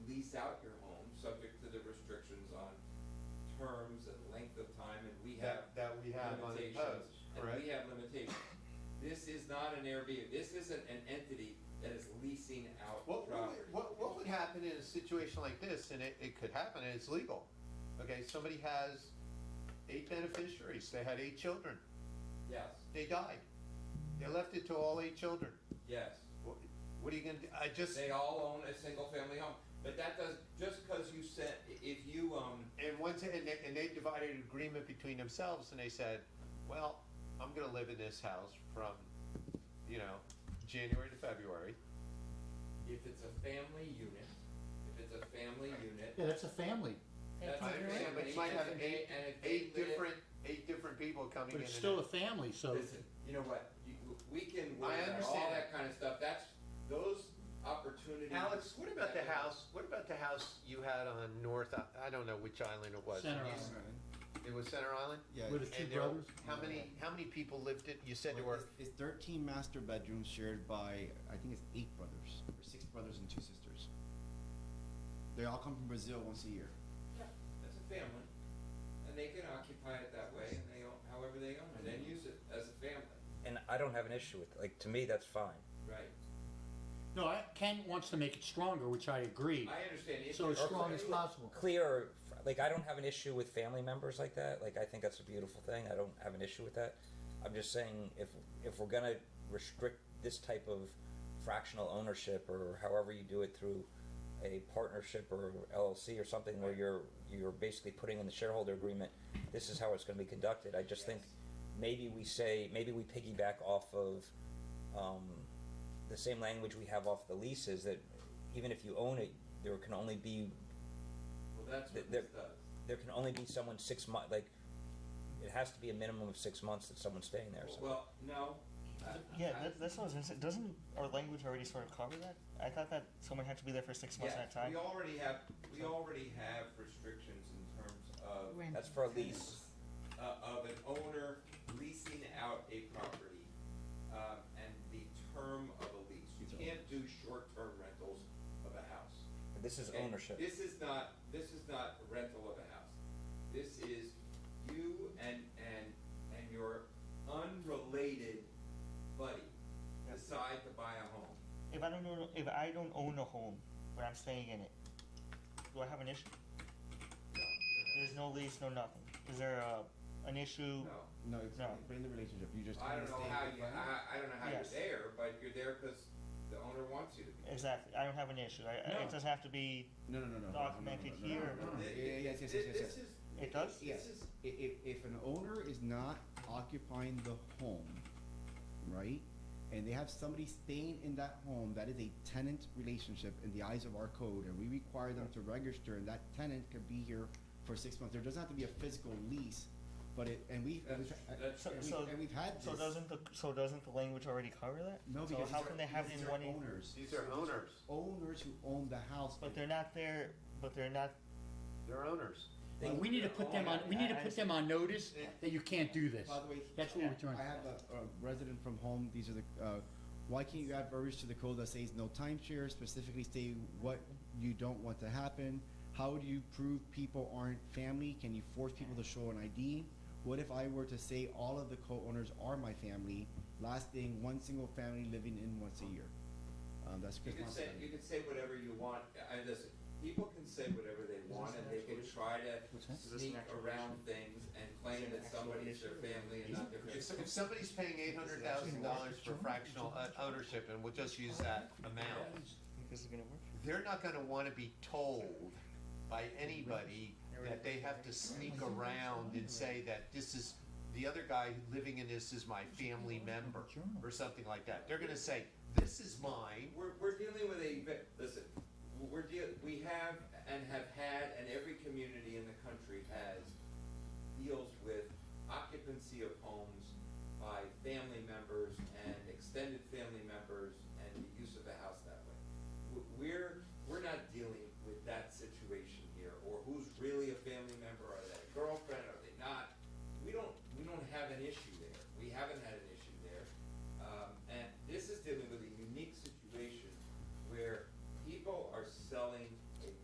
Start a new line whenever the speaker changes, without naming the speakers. lease out your home, subject to the restrictions on terms and length of time, and we have.
That- that we have on
limitations,
imposed,
And
correct?
we have limitations. This is not an Airbnb, this isn't an entity that is leasing out
What,
property.
what, what- what would happen in a situation like this, and it, it could happen, and it's legal? Okay, somebody has eight beneficiaries, they had eight children,
Yes,
they died. They left it to all eight children.
yes.
What what are you gonna, do? I just,
They all own a single-family home, but that does, just because you said, if you, um,
and once, and they, and they divided an agreement between themselves, and they said, well, I'm gonna live in this house from, you know, January to February.
if it's a family unit, if it's a family unit,
Yeah, that's a family.
that's a
I understand, but
family,
you might have
and they-
eight,
and if they
eight
live-
different, eight different people coming in.
But it's
and
still a
out.
family, so
Listen, you know what, you, we can
I
worry about all
understand
that
that.
kind of stuff, that's, those opportunities.
Alex, what about the house, what about the house you had on North, I I don't know which island it was.
Center
You-
Island.
It was Center Island?
With the
Yeah.
two
And there-
brothers?
How many, how many people lived it, you said there were,
It's it's thirteen master bedrooms shared by, I think it's eight brothers, or six brothers and two sisters. They all come from Brazil once a year.
That's a family, and they can occupy it that way, and they own, however they own it, and use it as a family,
And I don't have an issue with, like, to me, that's fine.
right?
No, I- Ken wants to make it stronger, which I agree.
I understand. if
So as
you're-
strong as possible.
Clear, like, I don't have an issue with family members like that. Like, I think that's a beautiful thing. I don't have an issue with that. I'm just saying, if if we're gonna restrict this type of fractional ownership, or however you do it through a partnership or LLC or something, where you're you're basically putting in the shareholder agreement, this is how it's going to be conducted. I just think maybe we say maybe we piggyback off of. Um, the same language we have off the leases that even if you own it, there can only be
Well, that's what
They're-
this does.
there can only be someone six months. Like it has to be a minimum of six months that someone's staying there. So
Well, no. I-
Yeah,
I-
that, that's what I was gonna say. Doesn't our language already sort of cover that? I thought that someone had to be there for six months at a
Yes,
time.
we already have, we already have restrictions in terms of,
that's for a lease.
uh, of an owner leasing out a property, um, and the term of a lease. You can't do short-term rentals of a house.
This is
Okay?
ownership.
This is not, this is not rental of a house. This is you and, and, and your unrelated buddy decide to buy a home.
If I don't own, if I don't own a home, but I'm staying in it, do I have an issue? There's no lease, no nothing. Is there a, an issue?
No,
No, it's
No.
not in the relationship, you just.
I don't know how you, I, I don't know how you're
Yes.
there, but you're there because the owner wants you to be.
Exactly. I don't have an issue. I, I-
No.
It doesn't have to be.
No, no, no, no, no. no,
Documented
no, no, no,
here.
no, no, no.
Thi-
Yeah, yeah, yes, yes, yes, yes,
This
yes.
is.
It does?
This
Yes,
is,
I- if, if an owner is not occupying the home, right? And they have somebody staying in that home, that is a tenant relationship in the eyes of our code, and we require them to register, and that tenant could be here for six months. There doesn't have to be a physical lease, but it, and we, and
that's,
we've-
that's,
So,
and
so,
we- and we've had this.
so doesn't the so doesn't the language already cover that?
No,
so
because
how
these are-
can they have it
these
in
are
one?
Owners,
these are owners,
owners who own the house.
But they're not there. But they're not.
they're owners.
But We need to put them on, we need to put them on notice that you can't do this.
By the way,
That's what we're trying
I have a, a resident from home. These are the. Uh, why can't you add verbiage to the code that says no timeshare? Specifically, say what you don't want to happen. How do you prove people aren't family? Can you force people to show an ID? What if I were to say all of the co-owners are my family? Last thing, one single family living in once a year. Um, that's
you
Chris.
can say, you
Monson.
can say whatever you want, I, listen, people can say whatever they want, and they can try to
Is this an
sneak
actual
around things and claim
Is it an
that
actual
somebody's their
issue?
family and not their
If,
family.
if somebody's paying eight hundred thousand dollars for fractional uh, ownership, and we'll just use that amount,
I think this is gonna work.
they're not gonna wanna be told by anybody that they have to sneak around and say that this is, the other guy living in this is my family member, or something like that. They're gonna say, this is mine,
We're, we're dealing with a, ve- listen, we're deal, we have and have had, and every community in the country has, deals with occupancy of homes by family members Um,